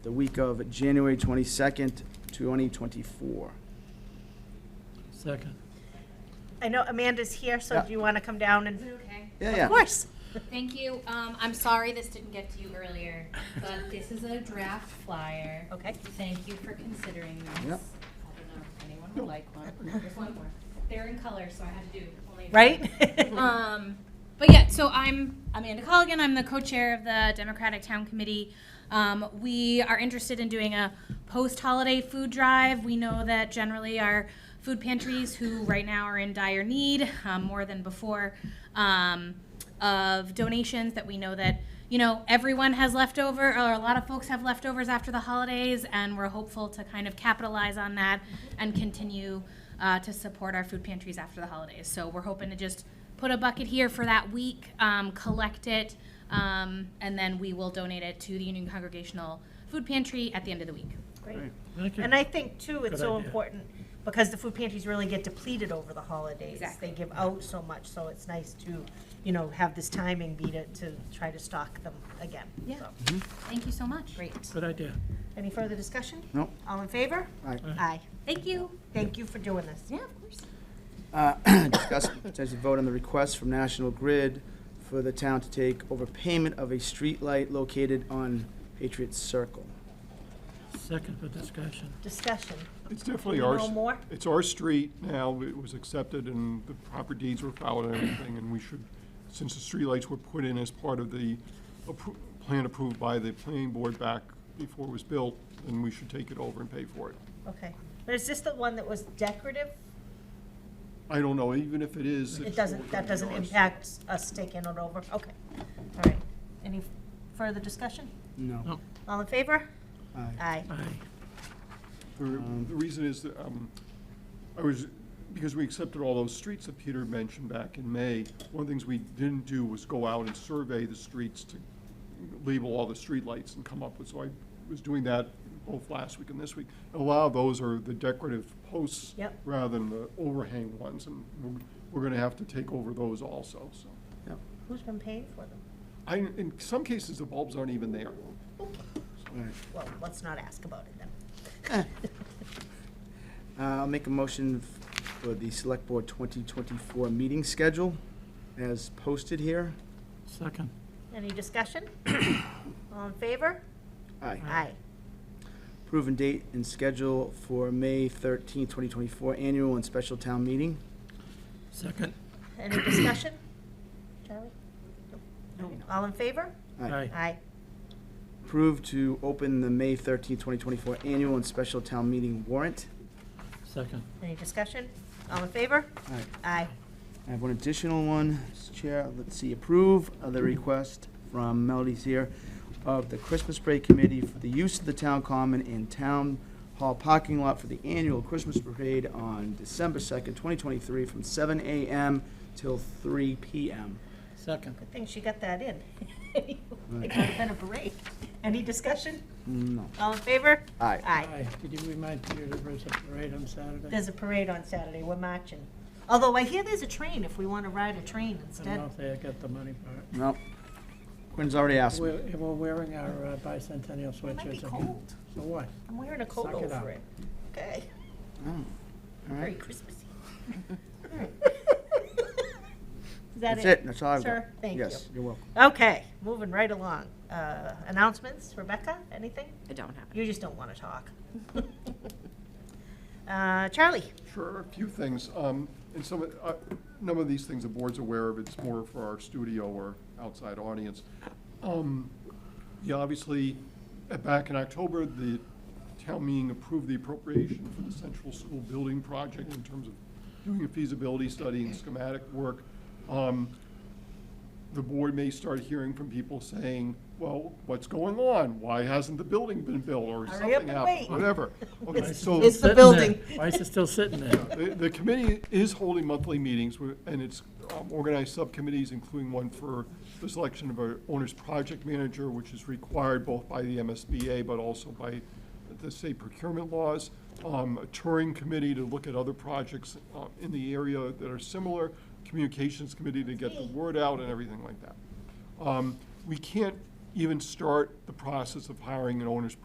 the week of January 22nd, 2024. Second. I know Amanda's here, so Yeah. do you want to come down and? Is it okay? Yeah, yeah. Of course. Thank you. Um, I'm sorry this didn't get to you earlier, but this is a draft flyer. Okay. Thank you for considering this. I don't Yep. know if anyone would like one. There's one more. They're in color, so I had to do only. Right? Um, but yeah, so I'm Amanda Colligan. I'm the co-chair of the Democratic Town Committee. Um, we are interested in doing a post-holiday food drive. We know that generally our food pantries, who right now are in dire need um, more than before, um, of donations that we know that you know everyone has leftover or a lot of folks have leftovers after the holidays and we're hopeful to kind of capitalize on that and continue uh, to support our food pantries after the holidays so we're hoping to just put a bucket here for that week, um, collect it, um, and then we will donate it to the Union Congregational Food Pantry at the end of the week. Great. Thank you. And I think too, it's Good so idea. important because the food pantries really get depleted over the holidays. Exactly. They give out so much, so it's nice to, you know, have this timing be to, to try to stock them again. Yeah. So, Thank you so much. Great. Good idea. Any further discussion? No. All in favor? Aye. Aye. Thank you. Thank you for doing this. Yeah, of course. Uh, Discuss and potentially vote on the request from National Grid for the town to take over payment of a streetlight located on Patriot Circle. Second for discussion. Discussion. It's definitely our, No s- more? it's our street now, it was accepted and the proper deeds were filed and everything, and we should, since the streetlights were put in as part of the appro- plan approved by the planning board back before it was built, then we should take it over and pay for it. Okay. But is this the one that was decorative? I don't know, even if it is. It it's doesn't, that always doesn't ours. impact us taking it over? Okay. All right. Any further discussion? No. No. All in favor? Aye. Aye. Aye. The the reason is, that, um, I was, because we accepted all those streets that Peter mentioned back in May, one of the things we didn't do was go out and survey the streets to label all the streetlights and come up with, so I was doing that both last week and this week. A lot of those are the decorative posts Yep. rather than the overhang ones, and we're- we're gonna have to take over those also, so. Yep. Who's been paying for them? I, in some cases, the bulbs aren't even there. All right. Well, let's not ask about it then. Uh, I'll make a motion f- for the Select Board 2024 meeting schedule as posted here. Second. Any discussion? All in favor? Aye. Aye. Proven date and schedule for May 13th, 2024 annual and special town meeting. Second. Any discussion? Charlie? All in favor? Aye. Aye. Approved to open the May 13th, 2024 annual and special town meeting warrant. Second. Any discussion? All in favor? Aye. Aye. I have one additional one, Mr. Chair. Let's see, approve of the request from Melody's here of the Christmas Parade Committee for the use of the town common and town hall parking lot for the annual Christmas parade on December 2nd, 2023, from 7 a.m. till 3 p.m. Second. Good thing she got that in. It would have been a break. Any discussion? Mm, No. All in favor? Aye. Aye. Did you remind Peter there was a parade on Saturday? There's a parade on Saturday. We're marching. Although I hear there's a train if we want to ride a train I don't know instead. if they got the money for No. Quinn's already asked it. me. We're, we're wearing our uh, bicentennial It might be sweatshirts. again. cold. So what? I'm wearing a coat Suck it up. over it. Okay. Oh, all Very right. Christmassy. Alright. Is that it? That's it, that's all I've got. Sir, thank you. Yes, you're welcome. Okay, moving right along. Uh, Announcements, Rebecca, anything? I don't have it. You just don't want to talk. Uh, Charlie? Sure, a few things. Um, And some, of- uh, none of these things the board's aware of, it's more for our studio or outside audience. Um, Yeah, obviously, uh, back in October, the town meeting approved the appropriation for the central school building project in terms of doing a feasibility study and schematic work. Um, the board may start hearing from people saying, well, what's going on? Why hasn't the building been built or Hurry up something and happened, wait. whatever. Okay, so. It's Sitting the there. building. Why is it still sitting there? The the committee is holding monthly meetings, where- and it's um, organized subcommittees, including one for the selection of our owner's project manager, which is required both by the MSBA but also by the state procurement laws, um, a touring committee to look at other projects uh, in the area that are similar, communications committee to get the word out and everything like that. Um, We can't even start the process of hiring an owner's